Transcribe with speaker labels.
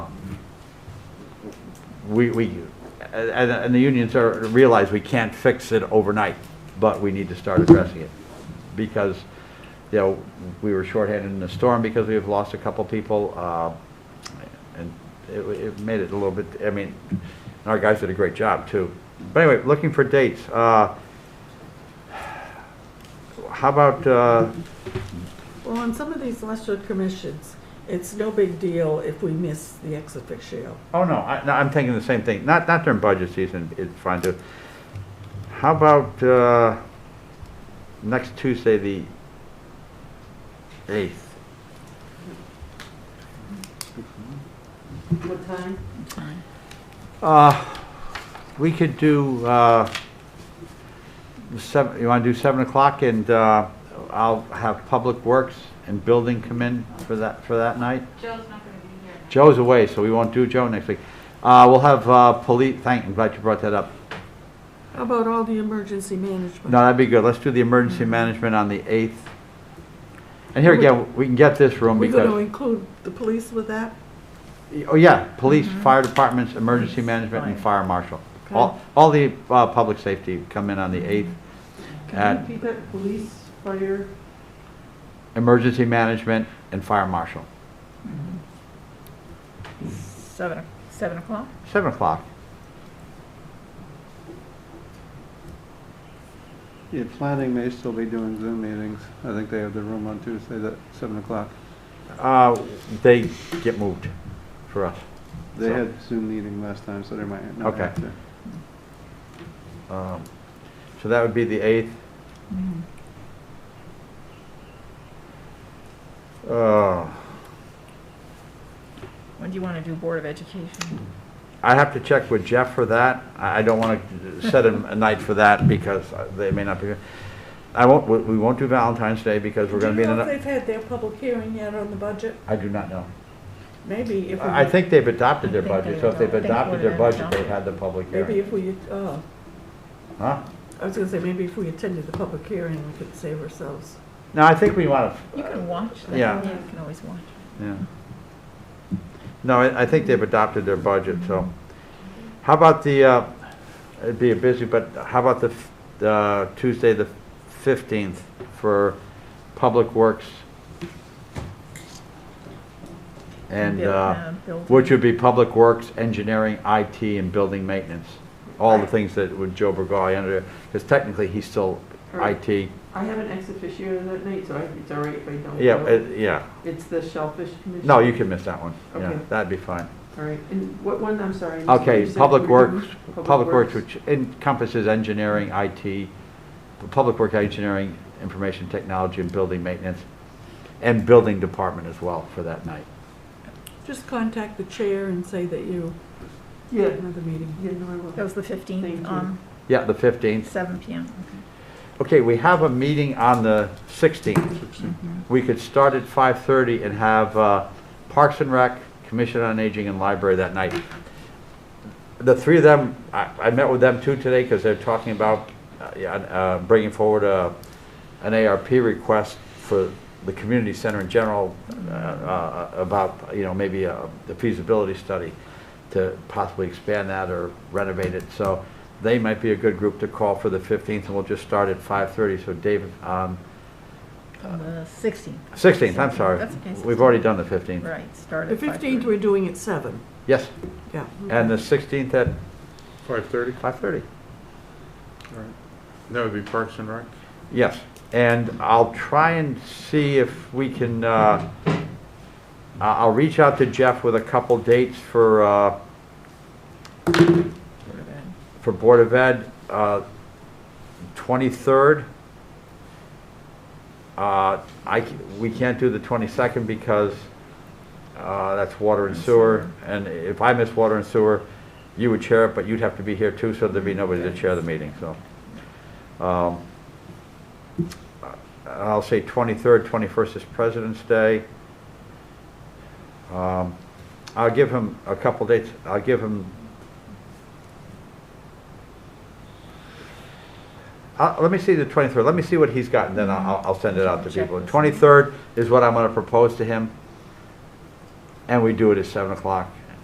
Speaker 1: we, we, and, and the unions are, realize we can't fix it overnight, but we need to start addressing it. Because, you know, we were shorthanded in the storm because we've lost a couple people, uh, and it, it made it a little bit, I mean, and our guys did a great job too. But anyway, looking for dates, uh, how about, uh,
Speaker 2: Well, on some of these lesser commissions, it's no big deal if we miss the ex officio.
Speaker 1: Oh, no, I, no, I'm thinking the same thing. Not, not during budget season, it's fine to. How about, uh, next Tuesday, the eighth?
Speaker 3: What time?
Speaker 1: Uh, we could do, uh, seven, you wanna do seven o'clock and, uh, I'll have Public Works and Building come in for that, for that night?
Speaker 4: Joe's not gonna be here.
Speaker 1: Joe's away, so we won't do Joe next week. Uh, we'll have, uh, police, thank, I'm glad you brought that up.
Speaker 2: How about all the emergency management?
Speaker 1: No, that'd be good. Let's do the emergency management on the 8th. And here again, we can get this room
Speaker 2: We're going
Speaker 1: because,
Speaker 2: to include the police with that?
Speaker 1: oh yeah, police, fire departments, emergency management, and fire marshal. All, all the uh, public safety come in on the 8th.
Speaker 3: Can you
Speaker 1: At
Speaker 3: repeat that, police, fire?
Speaker 1: emergency management and fire marshal.
Speaker 5: Seven, seven o'clock?
Speaker 1: 7 o'clock.
Speaker 6: Yeah, planning may still be doing Zoom meetings. I think they have the room on Tuesday at seven o'clock.
Speaker 1: Uh, They get moved for us.
Speaker 6: They
Speaker 1: So-
Speaker 6: had Zoom meeting last time, so they might not
Speaker 1: Okay.
Speaker 6: have to.
Speaker 1: Um, So that would be the 8th. Oh.
Speaker 5: When do you want to do Board of Education?
Speaker 1: I have to check with Jeff for that. I I don't want to set a a night for that because uh, they may not be. I won't, we- we won't do Valentine's Day because we're going to be in
Speaker 2: Do you know if
Speaker 1: an.
Speaker 2: they've had their public hearing yet on the budget?
Speaker 1: I do not know.
Speaker 2: Maybe if we...
Speaker 1: I I think they've adopted their
Speaker 5: I think they
Speaker 1: budget, so if they've
Speaker 5: adopt- I think
Speaker 1: adopted their
Speaker 5: we're
Speaker 1: budget,
Speaker 5: adopted.
Speaker 1: they've had the public
Speaker 2: Maybe
Speaker 1: hearing.
Speaker 2: if we, uh,
Speaker 1: Huh?
Speaker 2: I was going to say, maybe if we attended the public hearing, we could save ourselves.
Speaker 1: No, I think we want
Speaker 5: You
Speaker 1: to.
Speaker 5: can watch that.
Speaker 1: Yeah.
Speaker 5: You can always watch.
Speaker 1: Yeah. No, I I think they've adopted their budget, so. How about the, uh, it'd be a busy, but how about the f- the Tuesday, the 15th for Public Works? And
Speaker 5: Build-
Speaker 1: uh,
Speaker 5: build-
Speaker 1: which would be Public Works, Engineering, IT, and Building Maintenance. All the things that would Joe Burgoy under, because technically he's still
Speaker 3: Right.
Speaker 1: IT.
Speaker 3: I have an ex officio that night, so I- it's all right if I don't.
Speaker 1: Yeah,
Speaker 3: go.
Speaker 1: uh, yeah.
Speaker 3: It's the Shellfish Commission?
Speaker 1: No, you can miss that one. Yeah,
Speaker 3: Okay.
Speaker 1: that'd be fine.
Speaker 3: All right, and what one, I'm sorry. I missed what you
Speaker 1: Okay,
Speaker 3: said
Speaker 1: Public
Speaker 3: you were doing.
Speaker 1: Works, Public Works, which encompasses engineering, IT, Public Work Engineering, Information Technology, and Building Maintenance, and Building Department as well for that night.
Speaker 2: Just contact the chair and say that you,
Speaker 3: Yeah,
Speaker 2: another meeting.
Speaker 3: yeah, no, I will.
Speaker 5: That was the
Speaker 3: Thank
Speaker 5: fifteenth,
Speaker 3: you.
Speaker 5: um,
Speaker 1: Yeah, the 15th.
Speaker 5: seven PM.
Speaker 1: Okay, we have a meeting on the 16th. We could start at 5:30 and have uh, Parks and Rec, Commission on Aging, and Library that night. The three of them, I I met with them too today because they're talking about uh, yeah, uh, bringing forward a- an ARP request for the community center in general uh, uh, about, you know, maybe uh, the feasibility study to possibly expand that or renovate it. So they might be a good group to call for the 15th, and we'll just start at 5:30. So David, um,
Speaker 5: On the sixteenth,
Speaker 1: 16th, I'm sorry.
Speaker 5: That's okay,
Speaker 1: We've already done the 15th.
Speaker 5: right, start
Speaker 2: The
Speaker 5: at
Speaker 2: 15th,
Speaker 5: 5:30.
Speaker 2: we're doing at 7,
Speaker 1: Yes,
Speaker 2: yeah.
Speaker 1: and the 16th at
Speaker 7: Five thirty?
Speaker 1: 5:30.
Speaker 7: That would be Parks and Rec?
Speaker 1: Yes, and I'll try and see if we can, uh, I- I'll reach out to Jeff with a couple dates for, uh,
Speaker 5: Board of Ed.
Speaker 1: for Board of Ed, uh, 23rd. Uh, I, c- we can't do the 22nd because uh, that's water and sewer, and if I miss water and sewer, you would chair it, but you'd have to be here too, so there'd be nobody to chair the meeting, so. um, I'll say 23rd, 21st is President's Day. Um, I'll give him a couple dates, I'll give him Uh, let me see the 23rd, let me see what he's got, and then I'll, I'll send it out to
Speaker 5: Check
Speaker 1: people.
Speaker 5: this.
Speaker 1: 23rd is what I'm gonna propose to him, and we do it at 7 o'clock.